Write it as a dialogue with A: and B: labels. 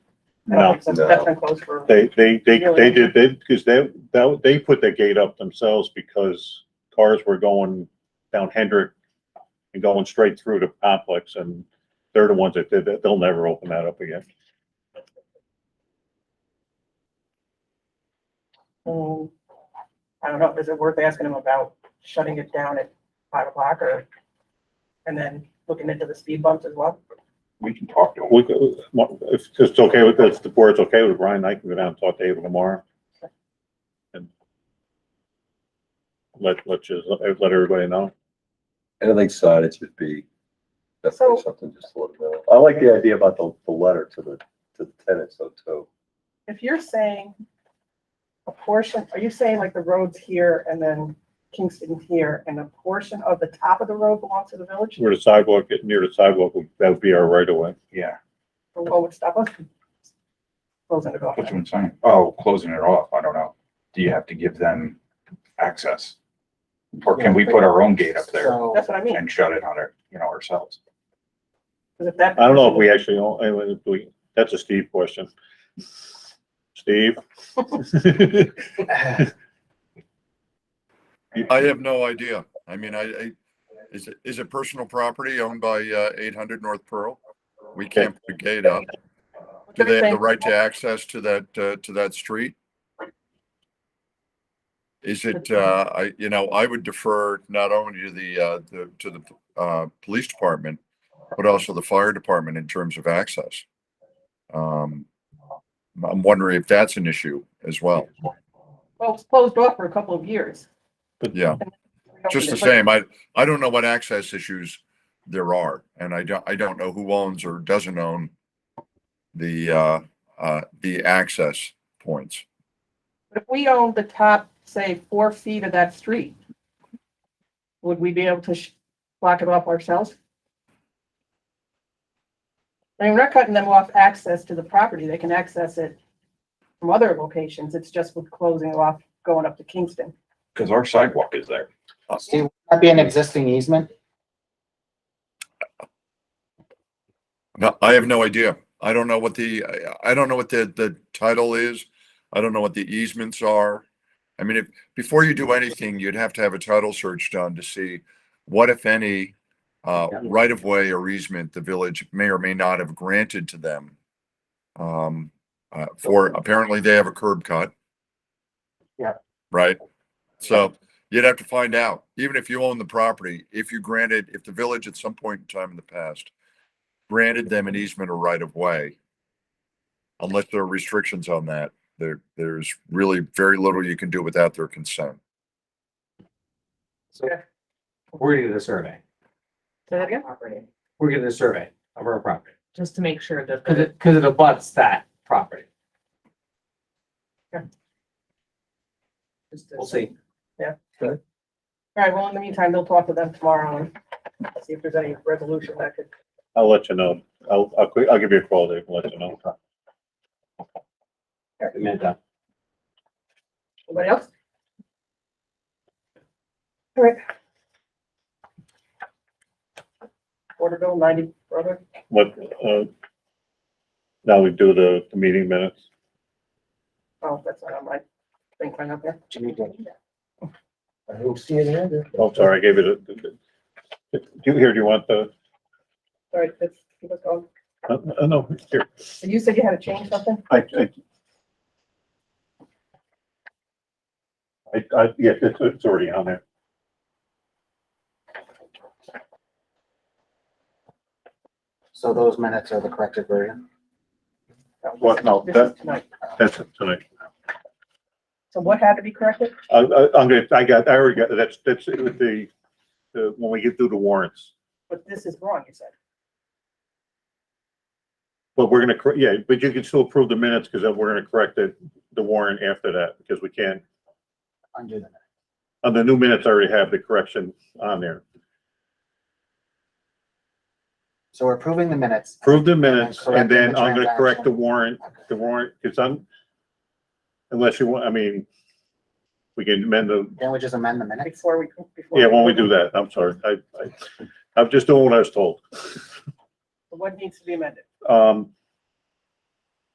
A: No,
B: That's
C: no.
B: that's been closed for.
A: uh, They, they, they,
B: Really?
A: they did, they, because they, that, they put the gate up themselves because cars were going down Hendrick and going straight through the complex and they're the ones that did that. They'll never open that up again.
B: Um, I don't know, is it worth asking them about shutting it down at five o'clock or? And then looking into the speed bumps as well?
C: We can talk to them.
A: We, could- if it's okay with, if the board's okay with it, Brian, I can go down and talk to Abel tomorrow. And let, let just, let everybody know.
D: And I think signage would be
B: So-
D: definitely something just a little bit. I like the idea about the, the letter to the, to the tenants though too.
B: If you're saying a portion, are you saying like the roads here and then Kingston here and a portion of the top of the road belongs to the village?
A: Where the sidewalk, near the sidewalk, that would be our right of way.
C: Yeah,
B: Or what would stop us from closing it off?
C: that's what I'm saying. Oh, closing it off, I don't know. Do you have to give them access? Or can we put our own gate up there
E: So,
B: That's what I mean,
C: and shut it on our, you know, ourselves?
B: because if that.
A: I don't know if we actually, own- anyway, if we, that's a Steve question. Steve?
F: I have no idea. I mean, I, I, is it, is it personal property owned by, uh, eight hundred North Pearl? We can't put a gate up. Do they have the right to access to that, uh, to that street? Is it, uh, I, you know, I would defer not only to the, uh, the, to the, uh, police department, but also the fire department in terms of access. Um, I'm wondering if that's an issue as well.
B: Well, it's closed off for a couple of years.
F: Yeah. just the same, I, I don't know what access issues there are, and I don't, I don't know who owns or doesn't own the, uh, uh, the access points.
B: But if we owned the top, say, four feet of that street, would we be able to sh- block it off ourselves? I mean, we're not cutting them off access to the property. They can access it from other locations. It's just with closing off, going up to Kingston.
C: Because our sidewalk is there.
E: Steve, would that be an existing easement?
F: No, I have no idea. I don't know what the, I- I don't know what the, the title is. I don't know what the easements are. I mean, if, before you do anything, you'd have to have a title search done to see what, if any, uh,
E: Yeah.
F: right of way or easement the village may or may not have granted to them. Um, uh, for, apparently they have a curb cut.
E: Yeah.
F: Right? So you'd have to find out, even if you own the property, if you granted, if the village at some point in time in the past granted them an easement or right of way. Unless there are restrictions on that, there, there's really very little you can do without their consent.
G: So we're gonna do the survey.
H: Say that again? Property,
G: We're gonna do the survey of our property,
H: Just to make sure that
G: cause
H: the
G: it, cause it abuts that property.
H: just to-
G: We'll see.
B: All right, well, in the meantime, they'll talk to them tomorrow and see if there's any resolution that could.
A: I'll let you know. I'll, I'll, quick- I'll give you a call, Dave, and let you know.
G: Amanda.
B: Anybody else? All right. Order bill ninety, brother.
A: What, uh, now we do the, the meeting minutes.
B: Oh, that's not on my thing right up there.
E: I don't see it either.
A: Oh, sorry, I gave you the, the- the- do you, here, do you want the,
B: Sorry, that's, that's all.
A: uh, uh, no, here.
B: You said you had to change something?
A: I, I. I, I, yes, it's, it's already on there.
E: So those minutes are the corrected version?
B: No, this-
A: What? No,
B: this
A: that-
B: is tonight.
A: That's it tonight.
B: So what had to be corrected?
A: I, I, I'm gonna, I got, I already got, that's, that's it with the, the, when we get through the warrants.
B: But this is wrong, you said.
A: But we're gonna, cor- yeah, but you can still approve the minutes because then we're gonna correct the, the warrant after that because we can't,
E: Undo them.
A: on the new minutes, I already have the correction on there.
E: So we're approving the minutes.
A: Approve the minutes
E: And
A: and then
E: correcting the
A: I'm gonna correct the
E: transaction.
A: warrant, the warrant, because I'm, unless you want, I mean, we can amend the,
E: Can we just amend the minutes?
B: Before we, before.
A: yeah, when we do that, I'm sorry. I, I, I'm just doing what I was told.
B: What needs to be amended?
A: Um,